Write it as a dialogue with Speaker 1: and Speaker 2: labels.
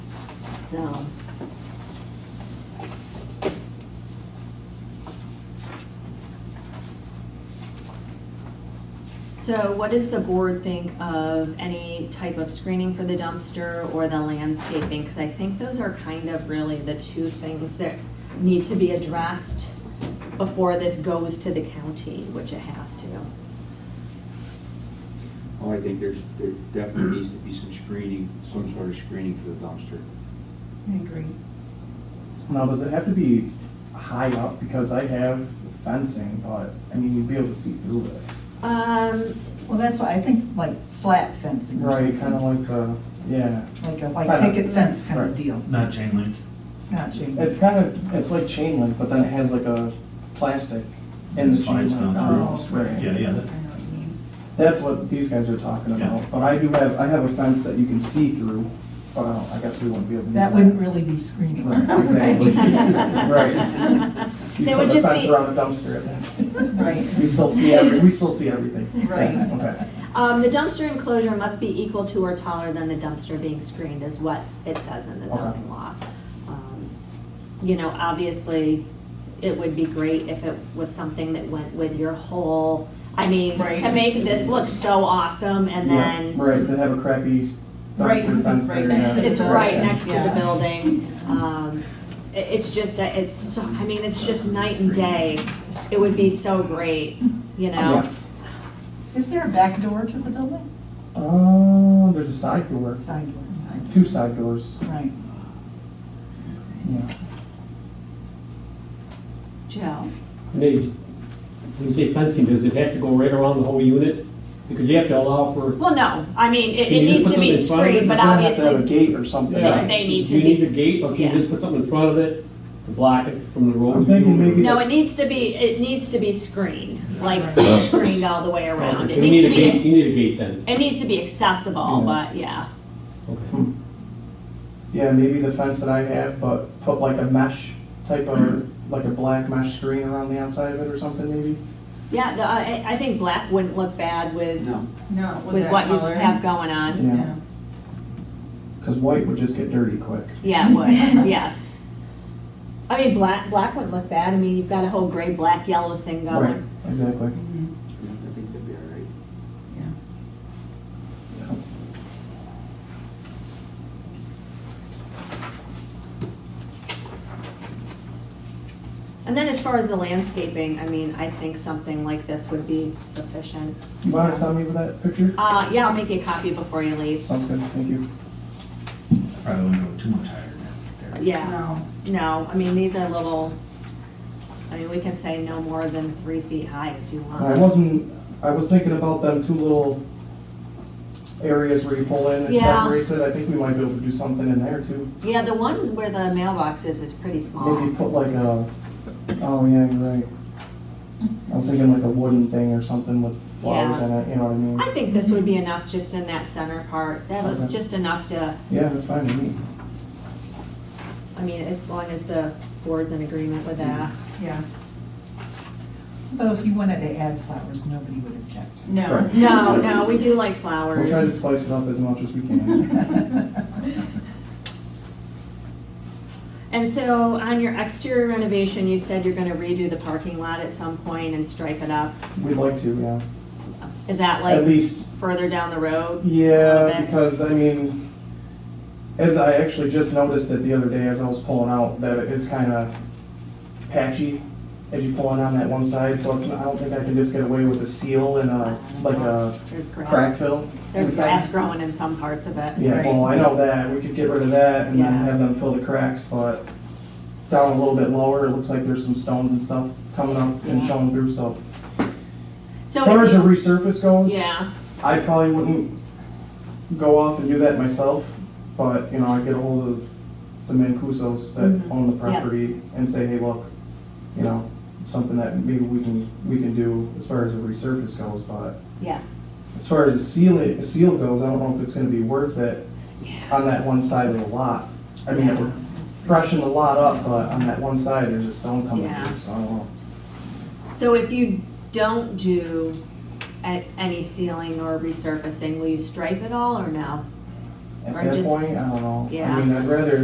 Speaker 1: so. So what does the board think of any type of screening for the dumpster or the landscaping? Because I think those are kind of really the two things that need to be addressed before this goes to the county, which it has to.
Speaker 2: Well, Oh, I think there's, there definitely needs to be some screening, some sort of screening for the dumpster.
Speaker 3: I agree.
Speaker 4: Now, does it have to be high up? Because I have fencing, but, I mean, you'd be able to see through it.
Speaker 1: Um,
Speaker 3: Well, that's why I think like slat fencing or
Speaker 4: Right,
Speaker 3: something.
Speaker 4: kind of like the, yeah.
Speaker 3: Like a white
Speaker 4: Kinda.
Speaker 3: picket fence kind of
Speaker 4: Right.
Speaker 3: deal.
Speaker 5: Not chain link.
Speaker 3: Not chain.
Speaker 4: It's kind of, it's like chain link, but then it has like a plastic in the chain
Speaker 5: Slides down
Speaker 4: link.
Speaker 3: Oh,
Speaker 5: through.
Speaker 4: Right.
Speaker 5: Yeah, yeah,
Speaker 3: I know
Speaker 5: that-
Speaker 3: what you mean.
Speaker 4: That's what these guys are talking
Speaker 5: Yeah.
Speaker 4: about. But I do have, I have a fence that you can see through, but I don't- I guess we wouldn't be able to. use
Speaker 3: That wouldn't really be screening.
Speaker 4: Right, exactly. Right. You
Speaker 1: They would
Speaker 4: put a
Speaker 1: just
Speaker 4: fence
Speaker 1: be-
Speaker 4: around a dumpster at that point.
Speaker 3: Right.
Speaker 4: We still see every, we still see everything.
Speaker 3: Right.
Speaker 4: Okay.
Speaker 1: Um, the dumpster enclosure must be equal to or taller than the dumpster being screened is what it says in the
Speaker 4: Okay.
Speaker 1: zoning law. Um, You know, obviously, it would be great if it was something that went with your whole, I mean, to
Speaker 3: Right.
Speaker 1: make this look so awesome and
Speaker 4: Yeah,
Speaker 1: then
Speaker 4: Right, they have a crappy s-
Speaker 3: Right,
Speaker 4: dumpster fence
Speaker 3: right
Speaker 4: there,
Speaker 3: next
Speaker 4: yeah.
Speaker 3: to the
Speaker 1: it's right
Speaker 4: Yeah.
Speaker 1: next to the
Speaker 3: Yeah.
Speaker 1: building. Um, i- it's just, a- it's, so I mean, it's just night and day. It would be so great, you know?
Speaker 4: Yeah.
Speaker 3: Is there a back door to the building?
Speaker 4: Uh, there's a side door,
Speaker 3: Side door, side
Speaker 4: two side doors,
Speaker 3: door. Right.
Speaker 4: yeah.
Speaker 1: Joe?
Speaker 6: Nate, when you say fencing, does it have to go right around the whole unit? Because you have to allow for,
Speaker 1: Well, no, I mean, it, it
Speaker 6: Can you
Speaker 1: needs
Speaker 6: put
Speaker 1: to be
Speaker 6: something
Speaker 1: screened,
Speaker 6: in front of it?
Speaker 1: but
Speaker 4: You're gonna have to
Speaker 1: obviously.
Speaker 4: have a gate or something.
Speaker 1: They-
Speaker 6: yeah.
Speaker 1: they need
Speaker 6: Do
Speaker 1: to
Speaker 6: uh, you need
Speaker 1: be-
Speaker 6: a gate, or can
Speaker 1: yeah.
Speaker 6: you just put something in front of it to block it from the road?
Speaker 4: I'm thinking maybe-
Speaker 1: No, it needs to be, it needs to be screened, like screened all the way around.
Speaker 6: Okay,
Speaker 1: It
Speaker 6: so you need
Speaker 1: needs
Speaker 6: a
Speaker 1: to
Speaker 6: gate, you
Speaker 1: be,
Speaker 6: need a gate then.
Speaker 1: it needs to be accessible,
Speaker 4: Yeah.
Speaker 1: but yeah.
Speaker 6: Okay.
Speaker 4: Hmm. Yeah, maybe the fence that I have, but put like a mesh type of, like a black mesh screen around the outside of it or something maybe?
Speaker 1: Yeah, the- I, I think black wouldn't look bad with,
Speaker 2: No,
Speaker 7: No,
Speaker 1: with what you have going on.
Speaker 4: Yeah, because white would just get dirty quick.
Speaker 1: Yeah, it would, yes. I mean, black, black wouldn't look bad. I mean, you've got a whole gray, black, yellow thing
Speaker 4: Right,
Speaker 1: going.
Speaker 4: exactly.
Speaker 2: I think that'd be all right.
Speaker 1: And then as far as the landscaping, I mean, I think something like this would be sufficient.
Speaker 4: You want to send me with that picture?
Speaker 1: Uh, yeah, I'll make you a copy before you leave.
Speaker 4: Sounds good, thank you.
Speaker 5: probably wouldn't go too much higher than that.
Speaker 1: Yeah. No, I mean, these are little, I mean, we can say no more than three feet high if you
Speaker 4: I
Speaker 1: want.
Speaker 4: wasn't, I was thinking about them two little areas where you pull in and
Speaker 1: Yeah.
Speaker 4: separates it. I think we might be able to do something in there too.
Speaker 1: Yeah, the one where the mailbox is, is pretty small.
Speaker 4: Maybe put like a, oh yeah, you're right. I was thinking like a wooden thing or something with flowers
Speaker 1: Yeah.
Speaker 4: in it, you know what I mean?
Speaker 1: I think this would be enough just in that center part, that'll,
Speaker 4: Okay.
Speaker 1: just enough to,
Speaker 4: Yeah, that's fine with me.
Speaker 1: I mean, as long as the board's in agreement with that.
Speaker 7: Yeah,
Speaker 3: Though if you wanted to add flowers, nobody would object.
Speaker 7: no.
Speaker 4: Right.
Speaker 1: No, no, we do like
Speaker 4: Mm-hmm. We'll try to
Speaker 1: flowers.
Speaker 4: spice it up as much as we can.
Speaker 1: And so on your exterior renovation, you said you're gonna redo the parking lot at some point and stripe it up.
Speaker 4: We'd like to, yeah.
Speaker 1: Is that
Speaker 4: At
Speaker 1: like
Speaker 4: least
Speaker 1: further down the road? A little
Speaker 4: Yeah,
Speaker 1: bit.
Speaker 4: because I mean, as I actually just noticed it the other day as I was pulling out, that it is kind of patchy as you pull it on that one side, so it's, I don't think I can just get away with a seal and a, uh, like a
Speaker 1: There's grass,
Speaker 4: crack fill.
Speaker 1: there's
Speaker 4: inside.
Speaker 1: grass growing in some parts of it.
Speaker 4: Yeah, well, I know that, we could get rid of that and then
Speaker 1: Yeah.
Speaker 4: have them fill the cracks, but down a little bit lower, it looks like there's some stones and stuff coming up and
Speaker 1: Yeah.
Speaker 4: showing through, so.
Speaker 1: So
Speaker 4: As far
Speaker 1: if
Speaker 4: as the
Speaker 1: you-
Speaker 4: resurface goes.
Speaker 1: Yeah.
Speaker 4: I probably wouldn't go off and do that myself, but, you know, I get ahold of the Mancusos
Speaker 1: Mhm.
Speaker 4: that own the
Speaker 1: Yeah.
Speaker 4: property and say, hey, look, you know, something that maybe we can, we can do as far as a resurface goes, but
Speaker 1: Yeah,
Speaker 4: as far as the seal, the seal goes, I don't know if it's gonna be worth it on that one side of the lot. I mean, it would freshen the lot up, but on that one side, there's a stone coming
Speaker 1: Yeah.
Speaker 4: through, so I don't know.
Speaker 1: so if you don't do a- any sealing or resurfacing, will you stripe it all or no? Or
Speaker 4: At that
Speaker 1: just-
Speaker 4: point, I don't know.
Speaker 1: Yeah.
Speaker 4: I mean, I'd rather